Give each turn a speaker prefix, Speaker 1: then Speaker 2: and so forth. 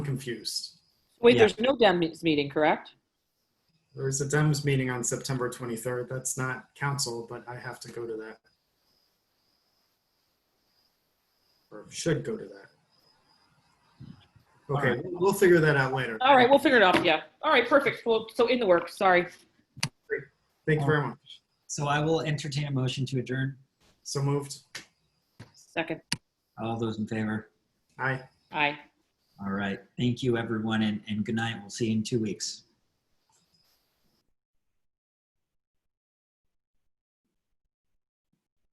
Speaker 1: confused.
Speaker 2: Wait,
Speaker 3: Yeah.
Speaker 2: there's no Dems meeting, correct?
Speaker 1: There is a Dems meeting on September 23rd. That's not council, but I have to go to that. Or should go to that. Okay, we'll- we'll figure that out later.
Speaker 2: All right, we'll figure it out. Yeah. All right, perfect. Well, so in the works. Sorry.
Speaker 1: Thank you very much.
Speaker 3: So I will entertain a motion to adjourn.
Speaker 1: So moved.
Speaker 2: Second.
Speaker 3: All those in favor?
Speaker 1: Aye.
Speaker 2: Aye.
Speaker 3: All right. Thank you, everyone, and, and good night. We'll see you in two weeks.